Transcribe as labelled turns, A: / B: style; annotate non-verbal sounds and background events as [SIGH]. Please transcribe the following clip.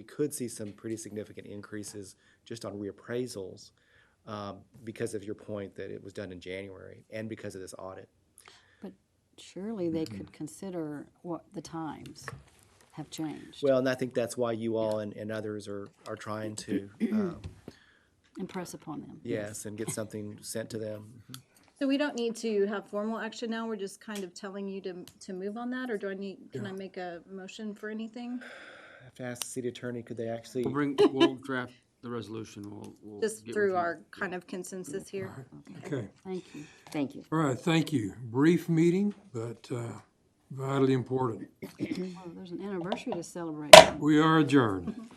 A: could see some pretty significant increases just on reappraisals um, because of your point that it was done in January and because of this audit.
B: But surely they could consider what the times have changed
A: Well, and I think that's why you all and, and others are, are trying [CLEARS THROAT] to, um,
B: and press upon them.
A: yes, and get something sent to them.
C: So we don't need to have formal action now, we're just kind of telling you to, to move on that, or do I need, can I make a motion for anything?
A: I have to ask the city attorney, could they actually,
D: We'll bring, we'll draft the resolution, we'll, we'll.
C: Just
D: get with
C: through
D: you.
C: our kind of consensus here?
E: Okay,
B: Thank you. Thank you.
E: all right, thank you. Brief meeting, but uh, vitally important.
B: Well, there's an anniversary to celebrate.
E: We are adjourned.